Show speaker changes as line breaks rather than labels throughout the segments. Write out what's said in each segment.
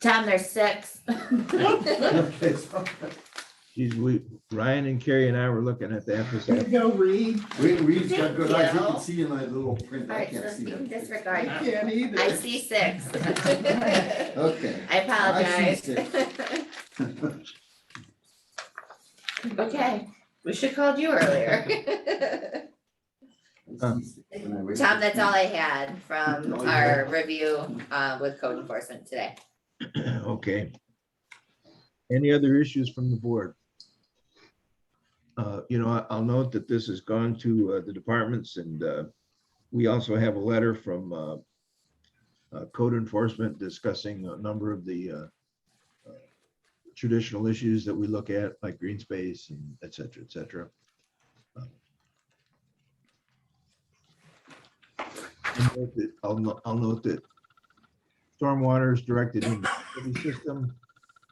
Tom, there's six.
Geez, we, Ryan and Carrie and I were looking at that for a
You
second.
go, Reed.
We, we've got good eyes, you
Yeah.
can see in that little print,
All
I
right, so
can't
let's
see
be
that.
I
disregard.
can't either.
I see six.
Okay,
I apologize. Okay, we should called you earlier.
Uh.
Tom, that's all I had from our review uh, with code enforcement today.
Okay. Any other issues from the board? Uh, you know, I- I'll note that this has gone to uh, the departments and uh, we also have a letter from uh, uh, code enforcement discussing a number of the uh, uh, traditional issues that we look at, like green space and et cetera, et cetera. Uh, I'll note that- I'll, no- I'll note that stormwater is directed in the city system,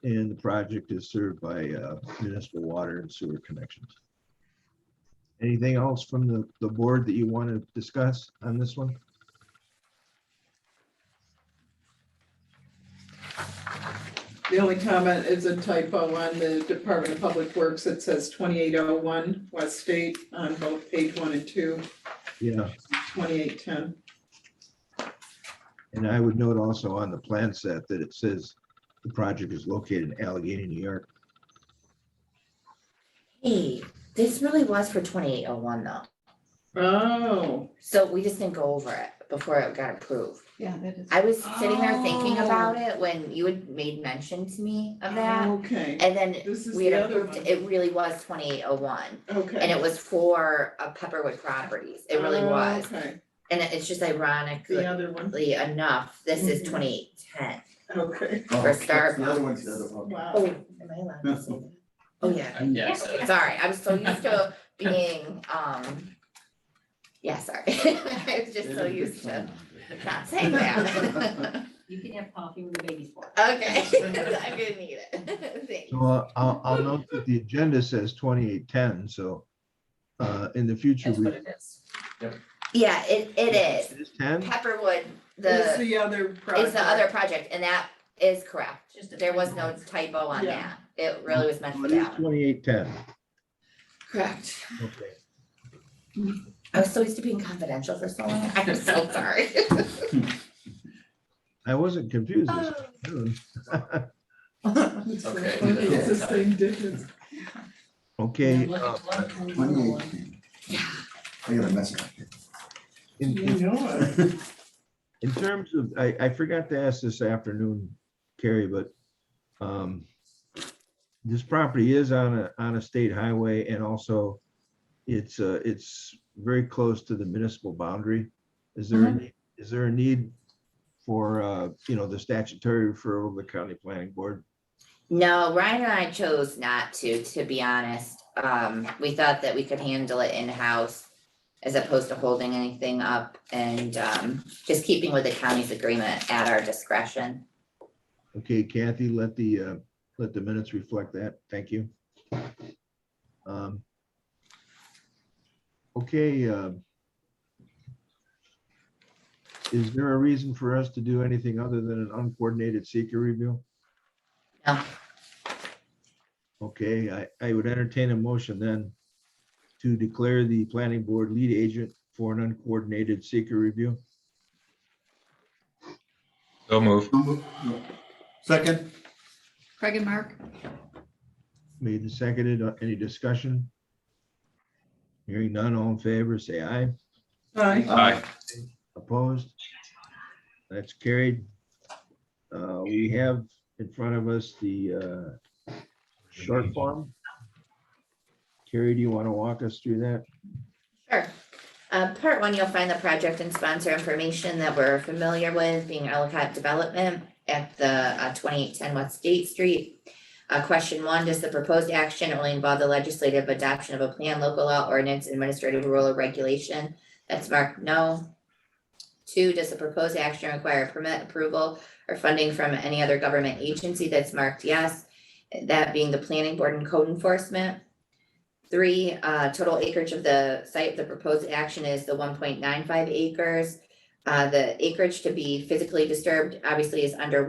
and the project is served by uh, municipal water and sewer connections. Anything else from the, the board that you want to discuss on this one?
The only comment is a typo on the Department of Public Works. It says twenty-eight oh one West State on both page one and two,
Yeah,
twenty-eight ten.
and I would note also on the plan set that it says the project is located in Allegheny, New York.
Hey, this really was for twenty-eight oh one though,
Oh,
so we just didn't go over it before it got approved.
Yeah, that is.
I was sitting there thinking
Oh.
about it when you had made mention to me of that,
okay.
and then
Oh. This is
we
the
had
other
approved,
one.
it it really was twenty-eight oh one. And
Okay.
it was for uh, Pepperwood Properties, it really
Oh,
was,
Okay,
and it- it's just
the
ironically
other one.
enough, this is
Mhm.
twenty-eight ten.
Okay.
For Starbucks.
Oh, The other one's the other one.
Wow.
Oh, am I allowed to say that? Oh, yeah.
Yeah, so
Sorry, I'm so used to being, um, yeah, sorry, I was just so used to not saying that.
You can have coffee with the baby's fork.
Okay, I'm gonna need it, thanks.
So uh, I'll, I'll note that the agenda says twenty-eight ten, so uh, in the future,
that's
we,
what it is.
Yeah, it, it is,
it is ten?
Pepperwood,
It's
the,
the other project.
is the other project, and that is correct.
Just a
There was no
typo.
typo on
Yeah.
that, it really was meant
So
for
It is
that one.
twenty-eight ten.
Correct.
Okay.
I was so used to being confidential for so long, I'm so sorry.
I wasn't confused. this
Oh.
afternoon.
It's so
Okay.
funny. It's the same difference.
Okay,
Look
uh,
at one, one, one, one.
Twenty-eight. I gotta mess it up.
in, in
You know it.
In terms of, I, I forgot to ask this afternoon, Carrie, but um, this property is on a, on a state highway and also it's, uh, it's very close to the municipal boundary. Is there, a ne- is there a need for, uh, you know, the statutory referral of the county planning board?
No, Ryan and I chose not to, to be honest. Um, we thought that we could handle it in-house as opposed to holding anything up and, um, just keeping with the county's agreement at our discretion.
Okay, Kathy, let the, uh, let the minutes reflect that. Thank you. Um, Okay. um, Is there a reason for us to do anything other than an uncoordinated seeker review?
No.
Okay, I, I would entertain a motion then to declare the planning board lead agent for an uncoordinated seeker review.
So move.
Second?
Craig and Mark?
Made and seconded. Uh, Any discussion? Hearing none, all in favor, say aye.
Hi.
Aye.
Opposed? That's carried. Uh, We have in front of us the uh, short form. Carrie, do you want to walk us through that?
Sure. Uh, part one, you'll find the project and sponsor information that we're familiar with, being Ellicott Development at the uh, twenty-eight ten West State Street. Uh, question one, does the proposed action only involve the legislative adoption of a plan, local law, ordinance, administrative rule or regulation? That's marked no. Two, does the proposed action require permit approval or funding from any other government agency? That's marked yes. That being the planning board and code enforcement. Three, uh, total acreage of the site, the proposed action is the one point nine five acres. Uh, the acreage to be physically disturbed obviously is under